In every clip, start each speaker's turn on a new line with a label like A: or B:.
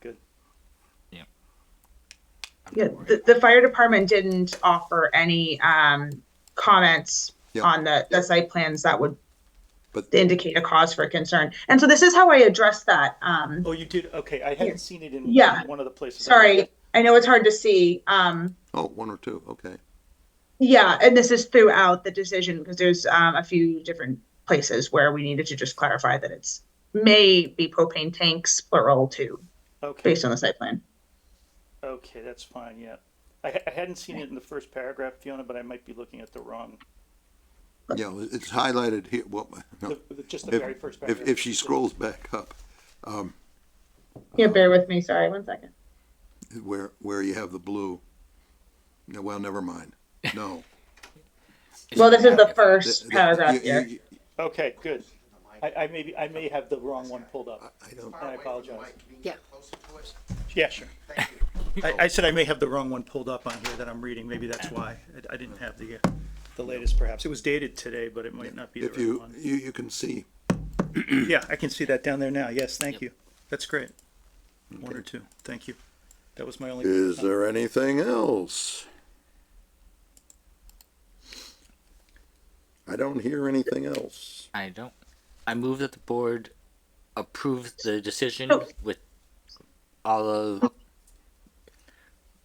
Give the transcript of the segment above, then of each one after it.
A: Good.
B: Yeah, the, the fire department didn't offer any um, comments
C: Yeah.
B: on the, the site plans that would
C: But-
B: indicate a cause for concern. And so this is how I address that. Um,
A: Oh, you did. Okay, I hadn't
B: Yes.
A: seen it in
B: Yeah.
A: one of the places.
B: sorry, I know it's hard to see. Um,
C: Oh, one or two, okay.
B: yeah, and this is throughout the decision because there's um, a few different places where we needed to just clarify that it's may be propane tanks plural too,
A: Okay.
B: based on the site plan.
A: Okay, that's fine. Yeah, I, ha- I hadn't seen it in the first paragraph, Fiona, but I might be looking at the wrong.
C: Yeah, it's highlighted here, well, no.
A: The, the- just the very
C: If,
A: first
C: if,
A: paragraph.
C: if she scrolls back up, um,
B: Yeah, bear with me. Sorry, one second.
C: where, where you have the blue. No, Well, never mind, no.
B: Well, this is the
C: Th-
B: first
C: th-
B: paragraph
C: you-
B: here.
C: you-
A: Okay, good. I, I may be, I may have the wrong one pulled up.
C: I don't,
A: I apologize.
D: Yeah.
A: Yeah, sure. I, I said I may have the wrong one pulled up on here that I'm reading. Maybe that's why I, I didn't have the, uh, the latest perhaps. It was dated today, but it might not be the
C: if
A: right
C: you,
A: one.
C: you, you can see,
A: Yeah, I can see that down there now. Yes, thank you. That's great. One or two. Thank you. That was my only.
C: is there anything else? I don't hear anything else.
D: I don't. I move that the board approves the decision
B: Oh.
D: with all of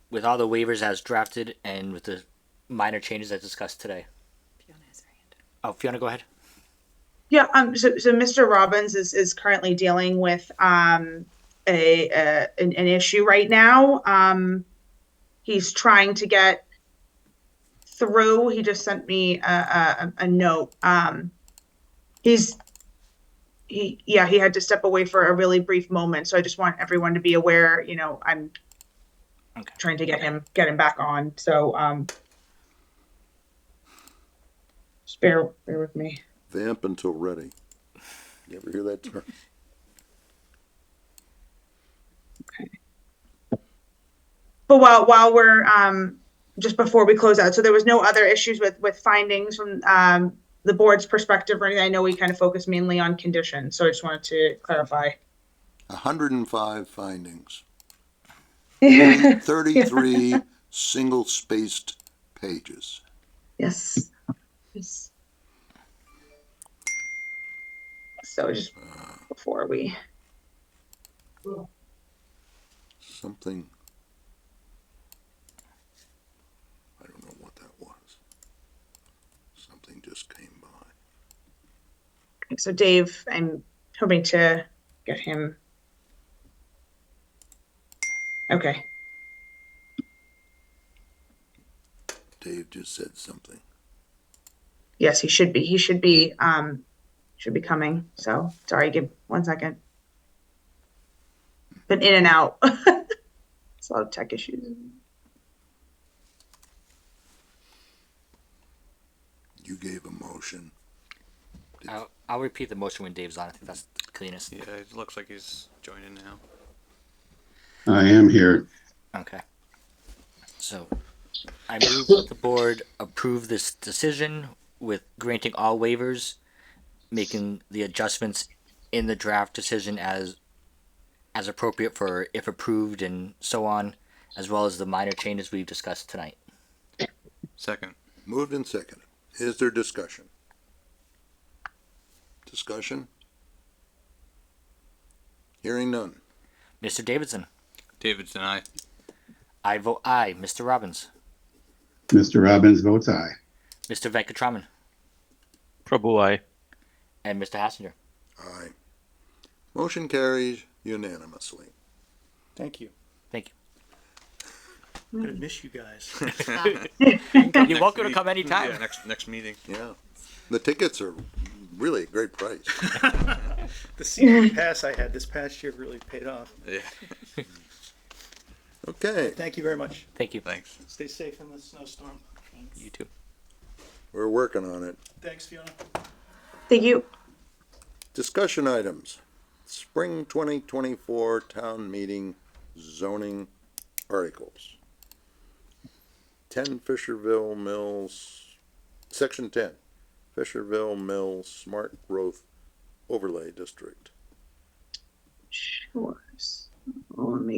D: with all the waivers as drafted and with the minor changes as discussed today. Oh, Fiona, go ahead.
B: Yeah, um, so, so Mr. Robbins is, is currently dealing with, um, a, uh, an, an issue right now. Um, he's trying to get through, he just sent me a, a, a note, um, he's, he, yeah, he had to step away for a really brief moment, so I just want everyone to be aware, you know, I'm
D: Okay.
B: trying to get him, get him back on, so, um, just bear, bear with me.
C: Vamp until ready. You ever hear that term?
B: But while while we're um, just before we close out, so there was no other issues with with findings from um, the board's perspective or anything. I know we kind of focused mainly on conditions, so I just wanted to clarify.
C: hundred and five findings.
B: yes.
C: Thirty-three single-spaced pages.
B: Yes. So just before we,
C: Something. I don't know what that was. Something just came by.
B: so Dave, I'm hoping to get him. Okay.
C: Dave just said something.
B: Yes, he should be. He should be. Um, should be coming. So sorry. Give one second. Been in and out. it's a lot of tech issues.
C: You gave a motion.
D: I'll, I'll repeat the motion when Dave's on. I think that's the cleanest.
E: Yeah, it looks like he's joining now.
F: I am here.
D: Okay. So, I move that the board approve this decision with granting all waivers, making the adjustments in the draft decision as as appropriate for if approved and so on, as well as the minor changes we've discussed tonight.
E: Second.
C: Moved and seconded. Is there discussion? Discussion? Hearing none.
D: Mr. Davidson,
E: David's and I.
D: I vote aye. Mr. Robbins,
F: Mr. Robbins votes aye.
D: Mr. Venkatraman,
G: Prabhu, I.
D: and Mr. Hassinger.
C: Aye. Motion carries unanimously.
A: Thank you.
D: Thank
A: I'm gonna miss you guys.
D: you. You're welcome to come anytime.
E: Yeah, next next meeting.
C: Yeah. The tickets are really a great price.
A: The season pass I had this past year really paid off.
E: Yeah.
C: Okay,
A: Thank you very much.
D: Thank you.
E: Thanks.
A: Stay safe in the snowstorm.
D: You too.
C: we're working on it.
A: Thanks, Fiona.
B: Thank you.
C: Discussion items. Spring twenty twenty-four town meeting zoning articles. Ten Fisherville Mills, section ten, Fisherville Mills Smart Growth Overlay District.
B: Sure. So Let me